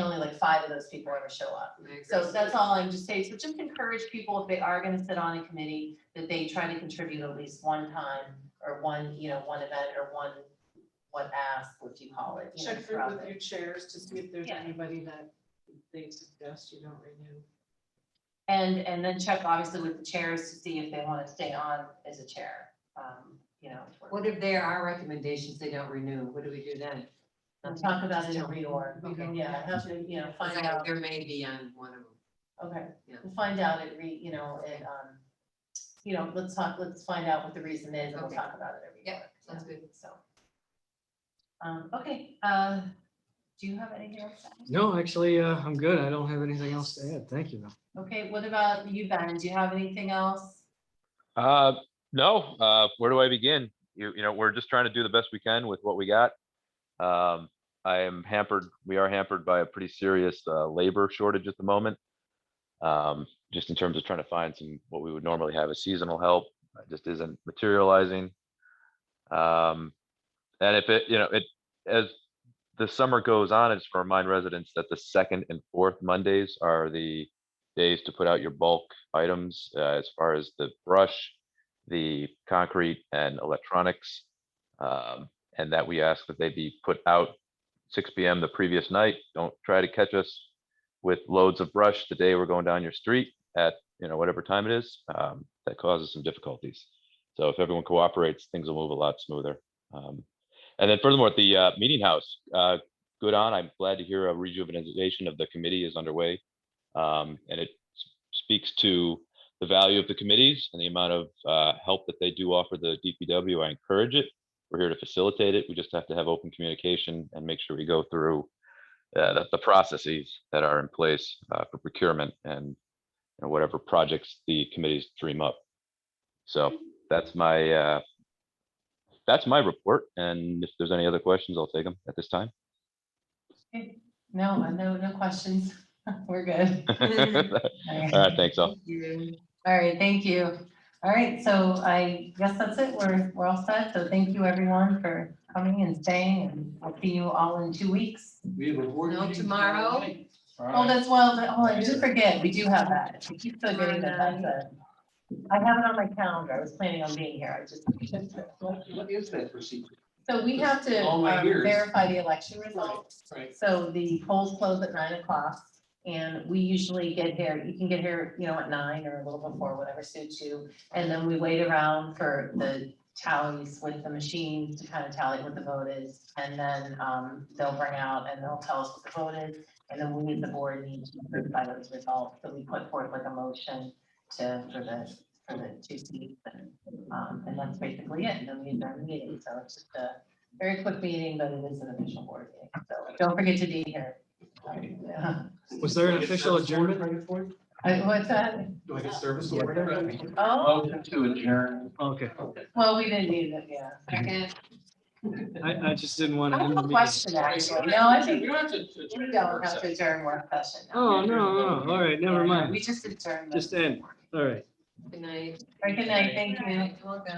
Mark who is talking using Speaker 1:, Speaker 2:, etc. Speaker 1: only like five of those people ever show up. So that's all I'm just saying, so just encourage people, if they are gonna sit on a committee, that they try to contribute at least one time or one, you know, one event or one, what ask, what you call it. you know,
Speaker 2: Check through
Speaker 1: throughout
Speaker 2: with
Speaker 1: the-
Speaker 2: your chairs to see if there's
Speaker 1: Yeah.
Speaker 2: anybody that they suggest you don't renew.
Speaker 1: And, and then check obviously with the chairs to see if they wanna stay on as a chair, um, you know. for-
Speaker 3: What if there are recommendations they don't renew? What do we do then?
Speaker 1: Let's Talk about it in a reorg,
Speaker 3: Okay.
Speaker 1: Okay, yeah, I have to, you know,
Speaker 3: Because
Speaker 1: find
Speaker 3: I-
Speaker 1: out,
Speaker 3: There may be on one of them.
Speaker 1: okay,
Speaker 3: Yeah.
Speaker 1: we'll find out at re, you know, at, um, you know, let's talk, let's find out what the reason is and we'll
Speaker 3: Okay.
Speaker 1: talk about it every
Speaker 3: Yeah,
Speaker 1: year.
Speaker 3: sounds good.
Speaker 1: So. Um, okay, uh, do you have anything else? to add?
Speaker 4: No, actually, uh, I'm good. I don't have anything else to add. Thank you.
Speaker 1: Okay, what about you, Ben? Do you have anything else?
Speaker 5: Uh, no, uh, where do I begin? You, you know, we're just trying to do the best we can with what we got. Um, I am hampered, we are hampered by a pretty serious, uh, labor shortage at the moment. Um, just in terms of trying to find some, what we would normally have as seasonal help, uh, just isn't materializing. Um, and if it, you know, it, as the summer goes on, I just want to remind residents that the second and fourth Mondays are the days to put out your bulk items, uh, as far as the brush, the concrete and electronics. Um, and that we ask that they be put out six PM the previous night. Don't try to catch us with loads of brush the day we're going down your street at, you know, whatever time it is. Um, that causes some difficulties. So if everyone cooperates, things will move a lot smoother. Um, and then furthermore, the, uh, meeting house, uh, good on. I'm glad to hear a rejuvenation of the committee is underway. Um, and it s- speaks to the value of the committees and the amount of uh, help that they do offer the DPW. I encourage it. We're here to facilitate it. We just have to have open communication and make sure we go through uh, the, the processes that are in place uh, for procurement and you know, whatever projects the committees dream up. So that's my uh, that's my report. And if there's any other questions, I'll take them at this time.
Speaker 1: No, uh, no, no questions. We're good.
Speaker 5: All right, thanks all.
Speaker 1: All right, thank you. All right, so I guess that's it. We're, we're all set. So thank you everyone for coming and staying and I'll see you all in two weeks.
Speaker 6: We have a board
Speaker 3: No,
Speaker 6: meeting.
Speaker 3: tomorrow.
Speaker 6: night.
Speaker 1: Oh, that's well, that- oh, I just forget, we do have that. We keep forgetting that that's a. I have it on my calendar. I was planning on being here. I just.
Speaker 6: What what is that procedure?
Speaker 1: So we have to
Speaker 6: All my
Speaker 1: um,
Speaker 6: years.
Speaker 1: verify the election results.
Speaker 6: Right.
Speaker 1: So the polls close at nine o'clock and we usually get here, you can get here, you know, at nine or a little before, whatever suits you. And then we wait around for the tallies with the machines to kind of tally what the vote is. And then um, they'll bring out and they'll tell us what the vote is. And then we, the board needs to approve by those results. So we put forth like a motion to, for the, for the two seats. And um, and that's basically it, and then we adjourn the meeting, so it's just a very quick meeting, but it is an official board meeting, so don't forget to be here.
Speaker 6: Okay.
Speaker 1: Yeah.
Speaker 4: Was there an
Speaker 6: Do I get
Speaker 4: official
Speaker 6: service order
Speaker 4: adjournment?
Speaker 6: right for it?
Speaker 1: I- Uh, What's that?
Speaker 6: Do I get service order?
Speaker 1: Oh,
Speaker 6: Motion to adjourn.
Speaker 4: Okay,
Speaker 1: well, we didn't need it, yeah.
Speaker 3: Second.
Speaker 4: I, I just didn't want
Speaker 1: I
Speaker 4: to. end
Speaker 1: have
Speaker 4: the
Speaker 1: a
Speaker 4: meeting.
Speaker 1: question, actually, no, I think
Speaker 6: We
Speaker 1: we
Speaker 6: don't have to. adjourn.
Speaker 1: don't have to adjourn work session.
Speaker 4: Oh, no, no, all right, never
Speaker 1: Yeah,
Speaker 4: mind.
Speaker 1: We just adjourned. the-
Speaker 4: Just end. All right.
Speaker 3: Good night.
Speaker 1: All right, Good night, thank
Speaker 3: Good
Speaker 1: you.
Speaker 3: night. Welcome.